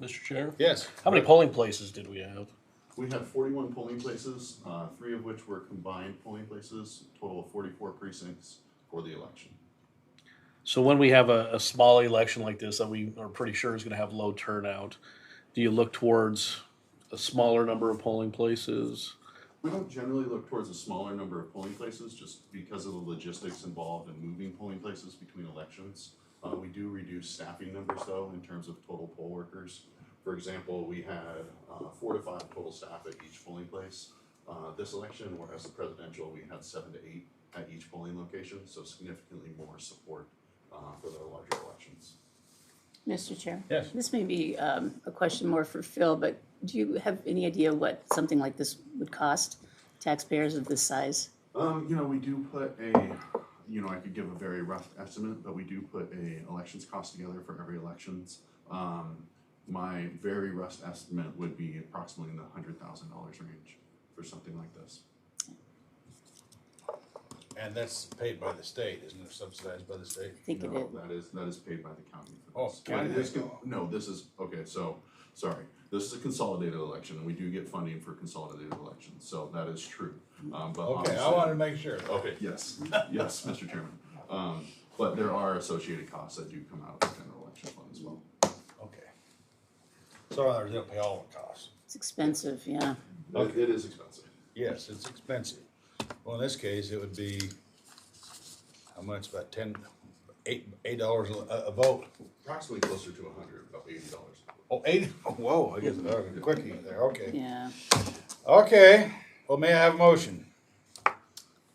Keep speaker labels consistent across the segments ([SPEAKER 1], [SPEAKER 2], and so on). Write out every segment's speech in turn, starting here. [SPEAKER 1] Mr. Chair?
[SPEAKER 2] Yes.
[SPEAKER 1] How many polling places did we have?
[SPEAKER 3] We have forty-one polling places, uh, three of which were combined polling places, total of forty-four precincts for the election.
[SPEAKER 1] So when we have a, a small election like this that we are pretty sure is gonna have low turnout, do you look towards a smaller number of polling places?
[SPEAKER 3] We don't generally look towards a smaller number of polling places just because of the logistics involved in moving polling places between elections. Uh, we do reduce staffing numbers though in terms of total poll workers. For example, we had, uh, four to five total staff at each polling place. Uh, this election, whereas the presidential, we had seven to eight at each polling location, so significantly more support, uh, for the larger elections.
[SPEAKER 4] Mr. Chair?
[SPEAKER 2] Yes.
[SPEAKER 4] This may be um, a question more for Phil, but do you have any idea what something like this would cost taxpayers of this size?
[SPEAKER 3] Um, you know, we do put a, you know, I could give a very rough estimate, but we do put a elections cost together for every elections. Um, my very rough estimate would be approximately in the hundred thousand dollars range for something like this.
[SPEAKER 2] And that's paid by the state, isn't it subsidized by the state?
[SPEAKER 4] I think it
[SPEAKER 3] No,
[SPEAKER 4] is.
[SPEAKER 3] that is, that is paid by the county for
[SPEAKER 2] Oh,
[SPEAKER 3] this. But it
[SPEAKER 2] county.
[SPEAKER 3] is con- No, this is, okay, so, sorry, this is a consolidated election, and we do get funding for consolidated elections, so that is true. Um,
[SPEAKER 2] Okay,
[SPEAKER 3] but
[SPEAKER 2] Oh, I
[SPEAKER 3] obviously-
[SPEAKER 2] wanted to make sure.
[SPEAKER 3] Okay, yes, yes, Mr. Chairman. Um, but there are associated costs that do come out of the general election fund as well.
[SPEAKER 2] Okay. So others, they'll pay all the costs.
[SPEAKER 4] It's expensive, yeah.
[SPEAKER 3] It- It is expensive.
[SPEAKER 2] Yes, it's expensive. Well, in this case, it would be, how much, about ten, eight, eight dollars a, a vote?
[SPEAKER 3] Approximately closer to a hundred, about eighty dollars.
[SPEAKER 2] Oh, eight, oh, whoa, I guess, uh, quickie there, okay.
[SPEAKER 4] Yeah.
[SPEAKER 2] Okay, well, may I have a motion?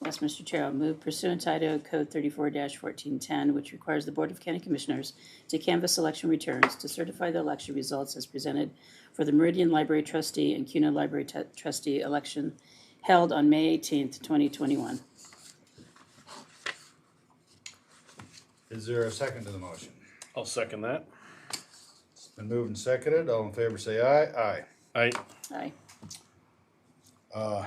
[SPEAKER 4] Yes, Mr. Chair, I'll move pursuant to Idaho Code thirty-four fourteen ten, which requires the Board of County Commissioners to canvass election returns to certify the election results as presented for the Meridian Library Trustee and Cuna Library Tu- Trustee election held on May eighteenth, twenty twenty-one.
[SPEAKER 2] Is there a second to the motion?
[SPEAKER 1] I'll second that.
[SPEAKER 2] It's been moved and seconded, all in favor say aye,
[SPEAKER 1] I,
[SPEAKER 4] Aye.
[SPEAKER 2] aye.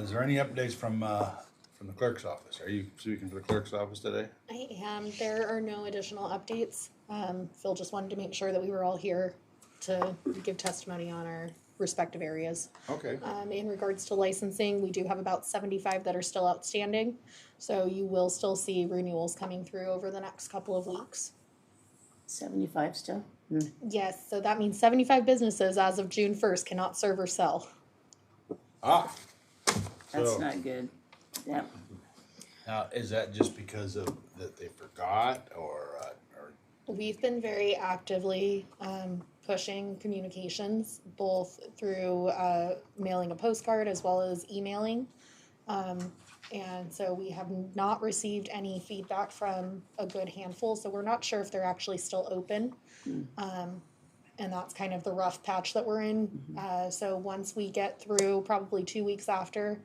[SPEAKER 2] Is there any updates from, uh, from the clerk's office? Are you speaking for the clerk's office today?
[SPEAKER 5] I am. There are no additional updates. Um, Phil just wanted to make sure that we were all here to give testimony on our respective areas.
[SPEAKER 2] Okay.
[SPEAKER 5] Um, in regards to licensing, we do have about seventy-five that are still outstanding. So you will still see renewals coming through over the next couple of weeks.
[SPEAKER 4] Seventy-five still?
[SPEAKER 5] Yes, so that means seventy-five businesses as of June first cannot serve or sell.
[SPEAKER 2] Ah,
[SPEAKER 4] That's
[SPEAKER 2] So-
[SPEAKER 4] not good. Yeah.
[SPEAKER 2] now, is that just because of, that they forgot, or, uh, or
[SPEAKER 5] We've been very actively um, pushing communications, both through uh, mailing a postcard as well as emailing. Um, and so we have not received any feedback from a good handful, so we're not sure if they're actually still open. Um, and that's kind of the rough patch that we're in. Uh, so once we get through, probably two weeks after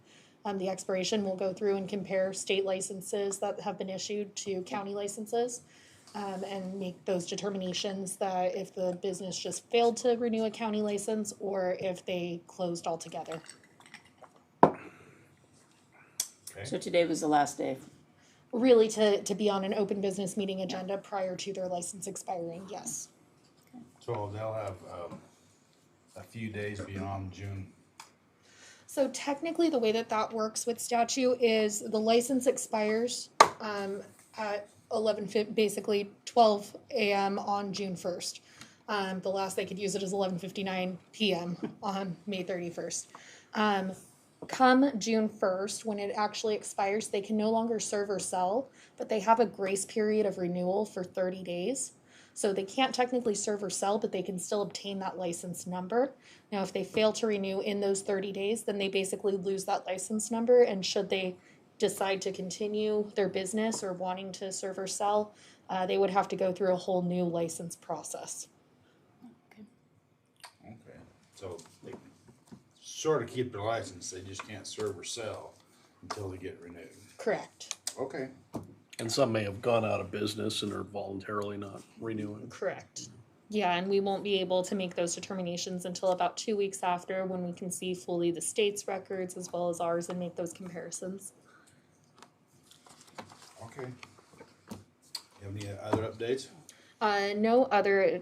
[SPEAKER 5] um, the expiration, we'll go through and compare state licenses that have been issued to county licenses um, and make those determinations that if the business just failed to renew a county license or if they closed altogether.
[SPEAKER 4] So today was the last day.
[SPEAKER 5] Really, to, to be on an open business meeting agenda prior to their license expiring, yes.
[SPEAKER 2] So they'll have, um, a few days beyond June.
[SPEAKER 5] So technically, the way that that works with statute is the license expires um, at eleven, fif- basically twelve a.m. on June first. Um, the last they could use it is eleven fifty-nine p.m. on May thirty-first. Um, come June first, when it actually expires, they can no longer serve or sell, but they have a grace period of renewal for thirty days. So they can't technically serve or sell, but they can still obtain that license number. Now, if they fail to renew in those 30 days, then they basically lose that license number. And should they decide to continue their business or wanting to serve or sell, uh, they would have to go through a whole new license process.
[SPEAKER 2] Okay. So they sort of keep their license, they just can't serve or sell until they get renewed.
[SPEAKER 5] Correct.
[SPEAKER 2] Okay.
[SPEAKER 1] and some may have gone out of business and are voluntarily not renewing.
[SPEAKER 5] Correct. Yeah, and we won't be able to make those determinations until about two weeks after when we can see fully the state's records as well as ours and make those comparisons.
[SPEAKER 2] Okay. You have any other updates?
[SPEAKER 5] Uh, no other